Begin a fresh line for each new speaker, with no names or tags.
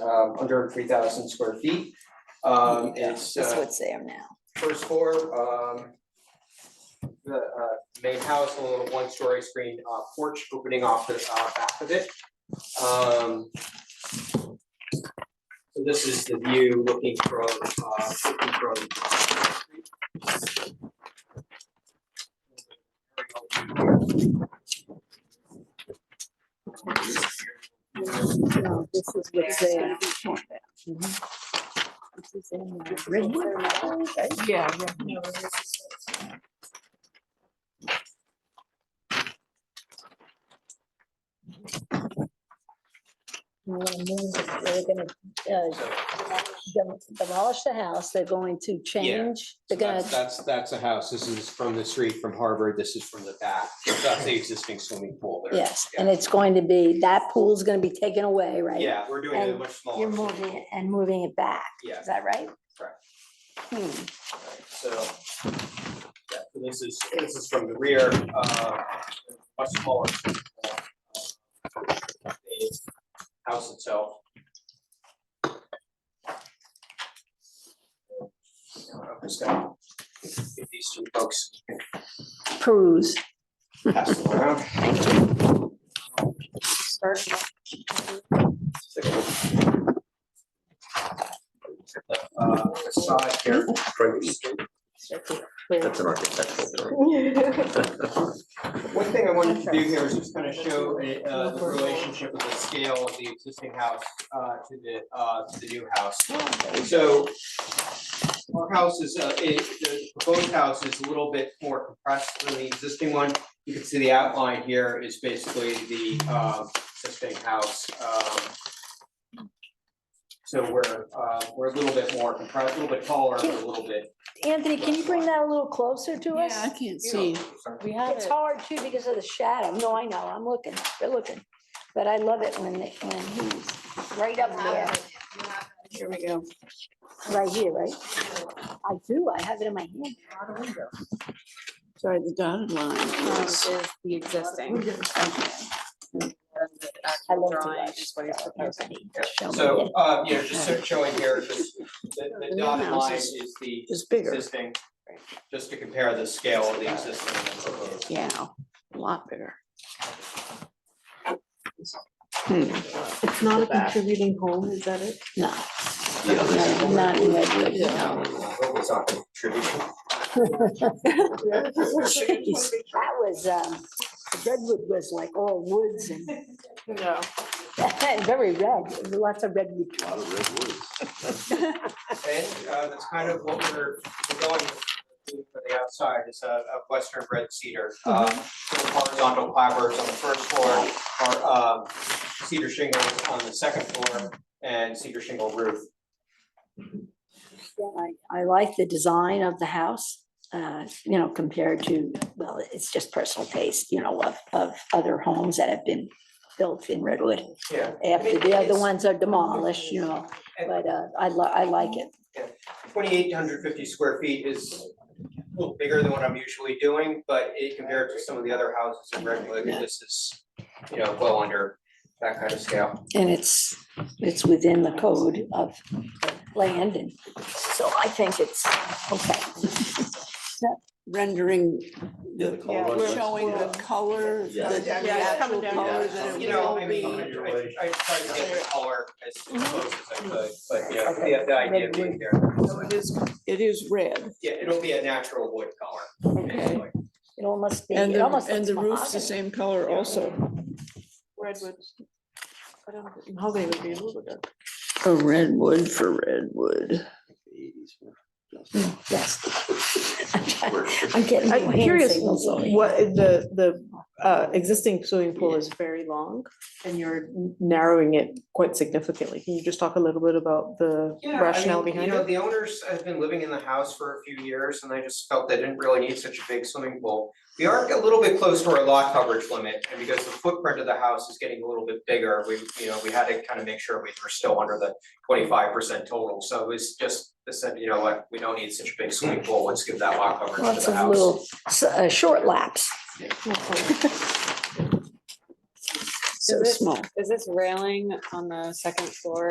um, under three thousand square feet. Um, it's,
That's
uh,
what's there now.
first floor, um, the, uh, main house, a little one-story screened, uh, porch opening off the, uh, back of it. Um, so this is the view looking from, uh, looking from.
No, this is what's there.
Yeah.
They're gonna uh, dem- demolish the house, they're going to change, they're gonna,
That's, that's, that's a house. This is from the street from Harvard. This is from the back. That's the existing swimming pool there.
yes, and it's going to be, that pool's gonna be taken away, right?
Yeah, we're doing it
And
much smaller.
You're moving it and moving it back,
Yeah.
is that right?
Correct.
Hmm.
Alright, So, yeah, so this is, this is from the rear, uh, much smaller. uh, the House itself. I'm just gonna give these two folks
Peruse.
pass them around. Uh, Side here.
That's an architectural drawing.
One thing I wanted to do here is just kind of show a, uh, the relationship of the scale of the existing house, uh, to the, uh, to the new house. So our house is, uh, it, the proposed house is a little bit more compressed than the existing one. You can see the outline here is basically the, um, existing house, um, So we're, uh, we're a little bit more compressed, a little bit taller, but a little bit.
Anthony, can you bring that a little closer to us?
I can't see.
We have
It's
it.
hard too because of the shadow. No, I know, I'm looking, we're looking. But I love it when, it- when he's right up there,
Here we go.
right here, right? I do, I have it in my hand.
Sorry, the dotted line
This
is,
is the existing.
I love to
Drawing
watch
is what he's proposing.
Anthony show me
So,
it.
uh, yeah, just sort of showing here, just the, the
new
dotted
house
line
is-
is the
is bigger.
existing, just to compare the scale of the existing and proposed.
Yeah, a lot bigger.
Hmm. It's not a contributing home, is that it?
No,
Yeah, this
no,
is-
not in Redwood, no.
It's not contributing.
Jeez, That was, um, Redwood was like all woods and
No.
very red, lots of redwood.
A lot of redwoods.
And, uh, that's kind of what we're we're going with for the outside is a, a western red cedar. Uh, with
Mm-hmm.
horizontal clappers on the first floor are, um, cedar shingles on the second floor and cedar shingle roof.
Yeah, I, I like the design of the house, uh, you know, compared to, well, it's just personal taste, you know, of, of other homes that have been built in Redwood.
Yeah.
After the other ones are demolished, you know,
And-
but, uh, I li- I like it.
twenty-eight hundred fifty square feet is a little bigger than what I'm usually doing, but it compared to some of the other houses in Redwood, this is, you know, well under that kind of scale.
And it's, it's within the code of land and so I think it's, okay.
Rendering,
Yeah, the
Yeah,
color.
we're-
showing the color,
Yeah.
the
Yeah,
the
it's
actual
coming down.
color that
You
it
know,
will
I
be.
mean, I, I tried to get the color as close as I could, but yeah, the, the idea being there,
So it is, it is red.
yeah, it'll be a natural wood color.
Okay.
basically.
It almost be,
And
it
the,
almost
and
looks
the roof's the
mahogany.
same color also.
Redwood. I don't know how they would be able to.
A redwood for redwood.
Yes. I'm getting
I'm
little hand
curious,
signals. over here.
what, the, the uh, existing swimming pool is very long and you're narrowing it quite significantly. Can you just talk a little bit about the
Yeah, I
rationale
mean,
behind
You know,
it?
the owners have been living in the house for a few years and I just felt they didn't really need such a big swimming pool. We are a little bit close to our lot coverage limit and because the footprint of the house is getting a little bit bigger, we, you know, we had to kind of make sure we were still under the twenty-five percent total. So it was just, they said, you know what, we don't need such a big swimming pool, let's give that lot coverage to
Lots
the
of
house.
little, s- uh, short laps.
so
Is it-
small.
Is this railing on the second floor